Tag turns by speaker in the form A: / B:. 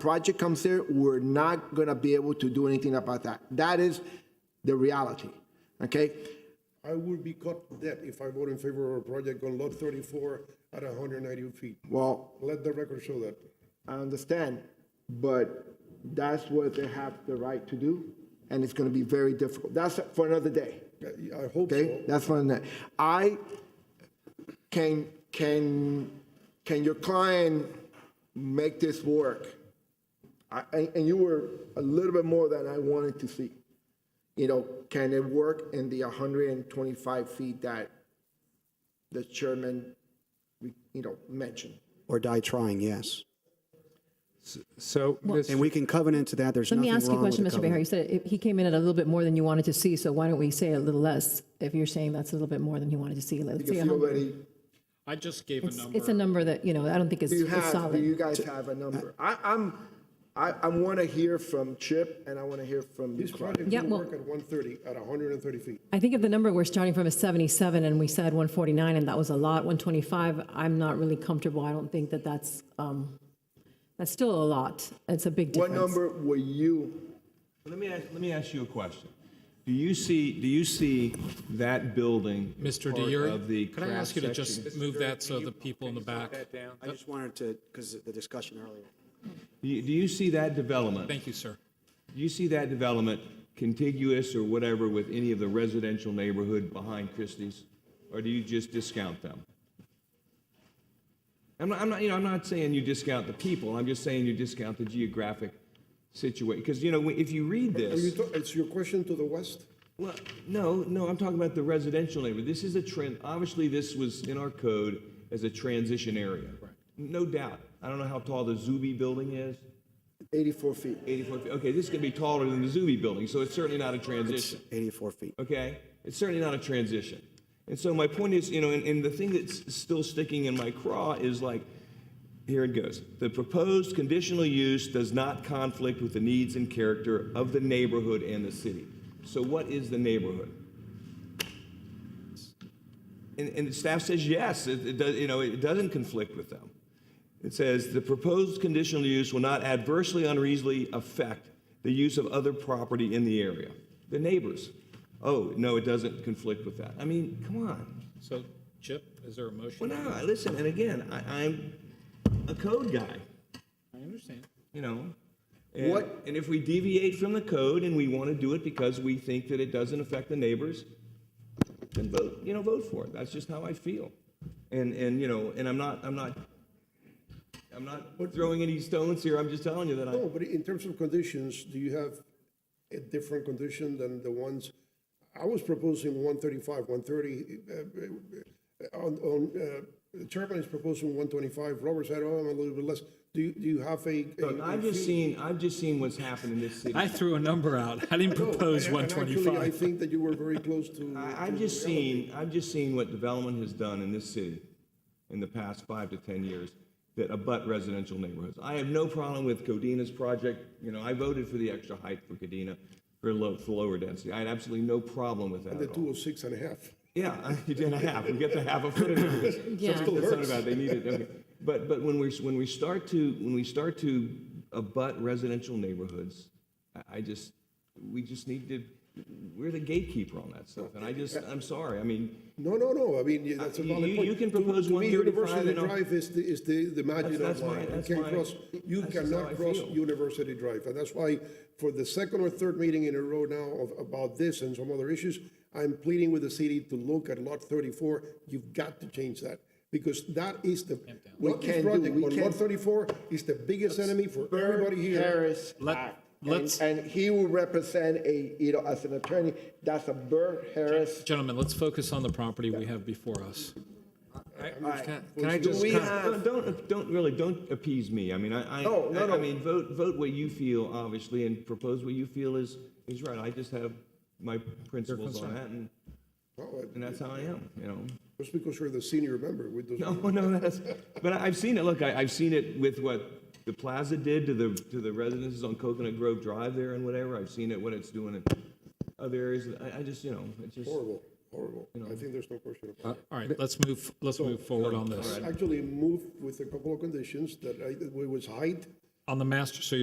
A: project comes here, we're not gonna be able to do anything about that. That is the reality, okay?
B: I would be caught dead if I vote in favor of a project on lot thirty-four at hundred and ninety feet.
A: Well,
B: Let the record show that.
A: I understand, but that's what they have the right to do, and it's gonna be very difficult. That's for another day.
B: I- I hope
A: Okay,
B: so.
A: that's one that, I, can, can, can your client make this work? I, and, and you were a little bit more than I wanted to see. You know, can it work in the hundred and twenty-five feet that the chairman, you know, mentioned?
C: or die trying, yes.
D: So, Ms.
C: And we can covenant to that, there's
E: Let
C: nothing
E: me
C: wrong with
E: ask you a question,
C: the
E: Mr. Behar.
C: covenant.
E: You said it- he came in at a little bit more than you wanted to see, so why don't we say a little less? If you're saying that's a little bit more than you wanted to see, let's
A: Because
E: say
A: you
E: 100.
A: already,
F: I just gave a
E: It's
F: number.
E: it's a number that, you know, I don't think is
A: you
E: is
A: have, do you
E: solid. uh,
A: guys have a number. I, I'm, I, I wanna hear from Chip and I wanna hear from you,
B: This
A: Clark.
B: project
E: Yeah,
B: will
E: well-
B: work at one thirty, at hundred and thirty feet.
E: I think if the number we're starting from is 77 and we said 149 and that was a lot, 125, I'm not really comfortable. I don't think that that's, um, that's still a lot. It's a big
A: What
E: difference.
A: number were you
G: Let me ask, let me ask you a question. Do you see, do you see that building?
F: Mr.
G: part Of the.
F: DeYer, could I ask you to
G: cross
F: just
G: section?
F: move that so the people in the back?
C: I just wanted to, because of the discussion earlier.
G: Do you, do you see that development?
F: Thank you, sir.
G: Do you see that development contiguous or whatever with any of the residential neighborhood behind Christie's? Or do you just discount them? I'm not, I'm not, you know, I'm not saying you discount the people, I'm just saying you discount the geographic situation. Because, you know, if you read
B: Are you
G: this,
B: ta- It's your question to the west?
G: well, no, no, I'm talking about the residential neighborhood. This is a trend, obviously, this was in our code as a transition area. No doubt. I don't know how tall the Zuby building is,
A: 84 feet?
G: 84 feet. Okay, this is gonna be taller than the Zuby building, so it's certainly not a
C: It's
G: transition.
C: 84 feet.
G: okay? It's certainly not a transition. And so my point is, you know, and, and the thing that's still sticking in my craw is like, here it goes. The proposed conditional use does not conflict with the needs and character of the neighborhood and the city. So what is the neighborhood? And, and the staff says yes, it, it does, you know, it doesn't conflict with them. It says the proposed conditional use will not adversely unreasonably affect the use of other property in the area. The neighbors. Oh, no, it doesn't conflict with that. I mean, come on.
F: So, Chip, is there a motion?
G: Well, no, I listen, and again, I, I'm a code guy,
F: I understand.
G: you know. And,
A: What-
G: And if we deviate from the code and we want to do it because we think that it doesn't affect the neighbors, then vote, you know, vote for it. That's just how I feel. And, and, you know, and I'm not, I'm not, I'm not throwing any stones here. I'm just telling you that I.
B: No, but in terms of conditions, do you have a different condition than the ones? I was proposing one thirty-five, one thirty, uh, on, on, uh, Chapman is proposing one twenty-five, Robert said, oh, I'm a little bit less. Do you, do you have a? a-
G: Look, I've just seen, I've just seen what's happened in this city.
F: I threw a number out. I didn't
B: No,
F: propose
B: and- and actually, I
F: 125.
B: think that you were very close to.
G: I, I've just seen, I've just seen what development has done in this city in the past five to 10 years that abut residential neighborhoods. I have no problem with Codina's project, you know, I voted for the extra height for Codina for low, for lower density. I had absolutely no problem with that
B: The
G: at all.
B: two oh six and a half.
G: Yeah, I- you did a half, we get the half a foot in it.
E: Yeah.
G: That's not about, they need it, okay. But, but when we, when we start to, when we start to abut residential neighborhoods, I, I just, we just need to, we're the gatekeeper on that stuff, and I just, I'm sorry, I mean,
B: No, no, no, I mean, yeah, that's a
G: Uh, you-
B: valid
G: you-
B: point.
G: you can
B: To-
G: propose
B: to me,
G: 135
B: University
G: and I'll-
B: Drive is the, is the, the Maginot
G: that's my-
B: Line. You
G: that's
B: can't
G: my-
B: cross, you
G: that's just how
B: cannot
G: I
B: cross
G: feel.
B: University Drive. And that's why for the second or third meeting in a row now of, about this and some other issues, I'm pleading with the city to look at lot thirty-four. You've got to change that because that is the, what
A: can't
B: this
A: do-
B: project
A: we
B: on lot
A: can't-
B: thirty-four is the biggest enemy for everybody here.
A: Harris
F: Let-
A: Act.
F: let's-
A: And, and he will represent a, you know, as an attorney, that's a Burr Harris.
F: Gentlemen, let's focus on the property we have before us.
D: can can I
A: Do
D: just,
A: we
D: con-
A: have,
G: don't, don't- don't, really, don't appease me, I mean, I, I.
A: No, no,
G: I-
A: no.
G: I mean, vote, vote what you feel, obviously, and propose what you feel is, is right, I just have my principles on that, and,
B: Oh,
G: and that's how I am, you know?
B: Just because you're the senior member, it doesn't
G: No, no, that's, but I- I've seen it, look, I, I've seen it with what the plaza did to the, to the residences on Coconut Grove Drive there and whatever, I've seen it, what it's doing in other areas, I, I just, you know, it's just.
B: Horrible, horrible. I think there's no question about
F: All right, let's move, let's move forward on this.
B: it. Actually, moved with a couple of conditions that I, it was height.
F: on the master, so